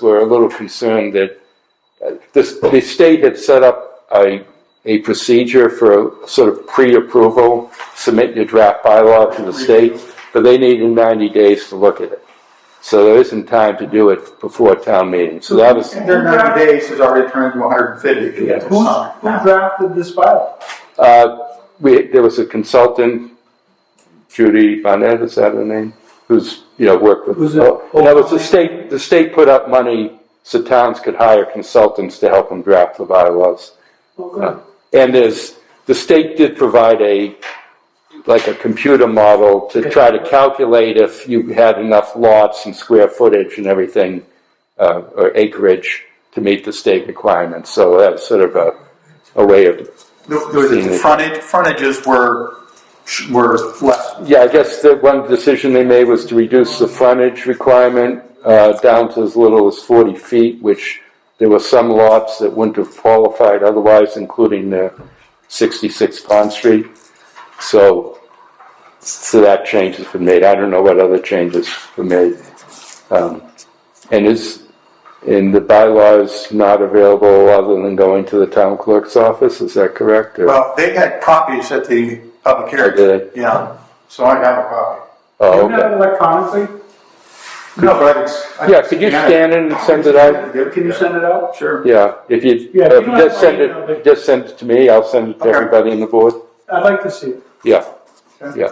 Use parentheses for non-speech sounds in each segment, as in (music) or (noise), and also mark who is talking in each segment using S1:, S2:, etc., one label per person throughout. S1: were a little concerned that uh, this, the state had set up a, a procedure for sort of pre-approval, submit your draft bylaw to the state, but they needed ninety days to look at it. So there isn't time to do it before town meeting, so that was,
S2: Their ninety days has already turned to hundred and fifty.
S3: Who's, who drafted this bylaw?
S1: uh, we, there was a consultant, Judy Bonnet, is that her name? Who's, you know, worked with.
S3: Who's it?
S1: No, it was the state, the state put up money so towns could hire consultants to help them draft the bylaws.
S3: Okay.
S1: And there's, the state did provide a, like a computer model to try to calculate if you had enough lots and square footage and everything, uh, or acreage to meet the state requirements. So that's sort of a, a way of,
S2: The, the- the frontage, frontages were, were less.
S1: yeah, I guess the one decision they made was to reduce the frontage requirement, uh, down to as little as forty feet, which there were some lots that wouldn't have qualified otherwise, including the sixty-six Pond Street. So, so that change has been made. I don't know what other changes were made. Um, and is, and the bylaws not available other than going to the town clerk's office, is that correct? or-
S2: Well, they had copies at the public
S1: Oh, did
S2: hearing, yeah, so I have a copy.
S1: Oh,
S3: You
S1: okay.
S3: have it electronically?
S2: No, but I can. s- I can
S1: Yeah, could you scan it and send it out?
S3: Can you send it out?
S2: Sure.
S1: Yeah, if you,
S3: Yeah, if you
S1: if you
S3: don't
S1: just
S3: have my
S1: send
S3: email, but-
S1: it, just send it to me, I'll send it to
S2: Okay.
S1: everybody in the board.
S3: I'd like to see it.
S1: Yeah,
S2: Okay.
S1: yeah.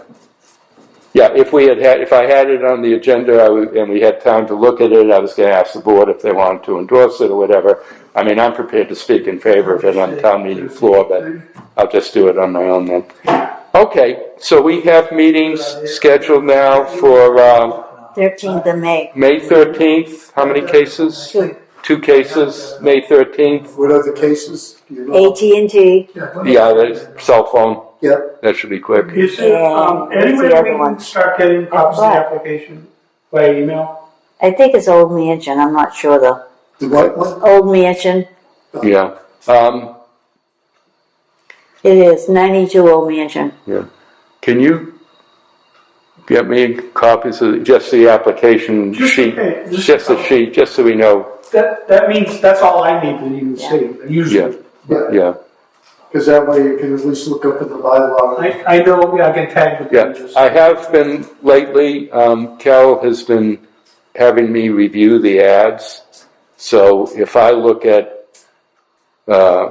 S1: Yeah, if we had had, if I had it on the agenda, I would, and we had time to look at it, I was gonna ask the board if they wanted to endorse it or whatever. I mean, I'm prepared to speak in favor of it on town meeting floor, but I'll just do it on my own then. Okay, so we have meetings scheduled now for, um,
S4: Thirteenth of May.
S1: May thirteenth, how many cases?
S4: Two.
S1: Two cases, May thirteenth,
S5: What are the cases? Do you know?
S4: AT&T,
S1: Yeah, the cell phone.
S5: Yeah.
S1: That should be quick.
S3: You said, um,
S4: Yeah,
S3: anyway, we
S4: the other
S3: can
S4: one.
S3: start getting copies of the
S4: But-
S3: application by email?
S4: I think it's Old Mansion, I'm not sure though.
S5: The what one?
S4: Old Mansion,
S1: Yeah. Um,
S4: it is, ninety-two Old Mansion.
S1: can you get me copies of just the application
S3: Just-
S1: sheet?
S3: okay, just-
S1: Just the sheet, just so we know,
S3: That, that means, that's all I need to even see,
S1: yeah,
S3: usually.
S5: Yeah,
S1: yeah,
S5: because that way you can at least look up in the bylaw.
S3: I, I know, yeah, I can tag the
S1: yeah.
S3: pages.
S1: I have been lately, um, Cal has been having me review the ads. So if I look at, uh,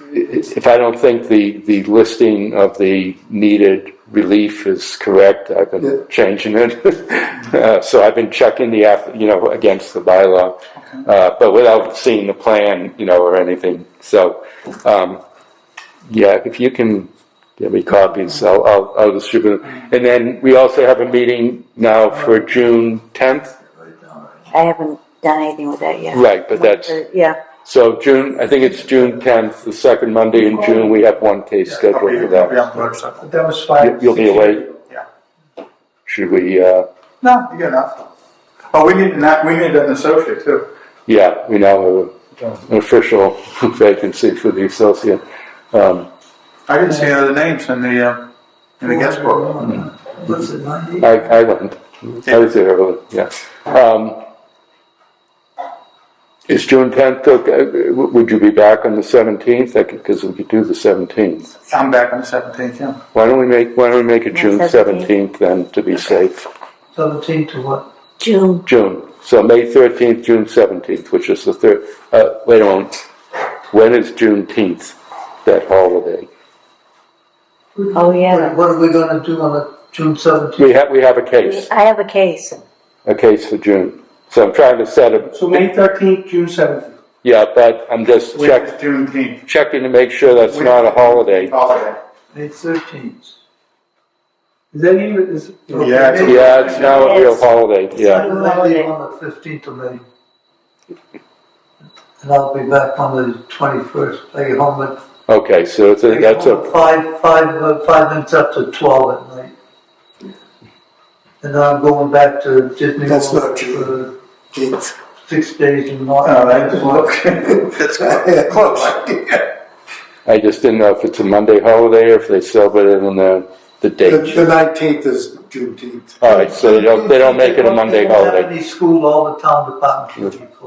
S1: i- if I don't think the, the listing of the needed relief is correct, I've
S5: Yeah.
S1: been changing it. (laughs) Uh, So I've been checking the, app, you know, against the bylaw, uh, but without seeing the plan, you know, or anything. So, um, yeah, if you can give me copies, I'll, I'll, I'll distribute them. uh, And then we also have a meeting now for June tenth,
S4: I haven't done anything with that yet.
S1: right, but that's,
S4: Yeah,
S1: so June, I think it's June tenth, the second Monday in June, we have one case scheduled
S2: I'll be-
S1: for
S2: I'll be
S1: that.
S2: on the motorcycle.
S3: But That was
S1: You-
S3: five.
S1: You'll be
S3: six
S1: away?
S3: years ago.
S2: Yeah.
S1: Should we, uh,
S2: No, you got enough. Oh, we need, an app- we need an associate too.
S1: yeah, we now have a- an official (laughs) vacancy for the associate. Um,
S2: I didn't see any other names in the, uh, in the guest book.
S6: Hmm.
S1: I, I went, I was there early, yeah. Um, is June tenth, okay, W- would you be back on the seventeenth? I could, because we could do the seventeenth.
S2: I'm back on the seventeenth, yeah.
S1: Why don't we make, why don't we make it
S4: Yeah,
S1: June
S4: 17th.
S1: seventeenth then, to be safe?
S6: Seventeen to what?
S4: June,
S1: June, so May thirteenth, June seventeenth, which is the third, uh, wait a moment. When is Juneteenth, that holiday?
S4: oh yeah.
S6: What are we gonna do on the June seventeenth?
S1: We have, we have a case,
S4: I have a case.
S1: a case for June. So I'm trying to set a,
S3: So May thirteenth, June seventh.
S1: yeah, but I'm just
S2: Which
S1: checking,
S2: is Juneteenth.
S1: checking to make sure that's not a holiday.
S2: Holiday.
S6: May thirteenth.
S3: Is that even, is?
S2: Yeah, it's a-
S1: Yeah, it's now a real holiday, yeah.
S6: I'll leave on the fifteenth of May. And I'll be back on the twenty-first, I get home at.
S1: Okay, so it's a,
S6: I get
S1: that's
S6: home
S1: a,
S6: at Five, five, uh, five minutes after twelve at night. And then I'm going back to Disney
S5: That's
S6: World
S5: not
S6: for
S5: true. It's-
S6: six days in
S2: Oh,
S6: March.
S2: that's That's close. (laughs)
S1: I just didn't know if it's a Monday holiday or if they celebrate it on the, the
S5: The
S1: date.
S5: the nineteenth is Juneteenth.
S1: All right, so they don't, they don't make it a Monday
S6: We don't have
S1: holiday.
S6: any school, all the town departments should be closed.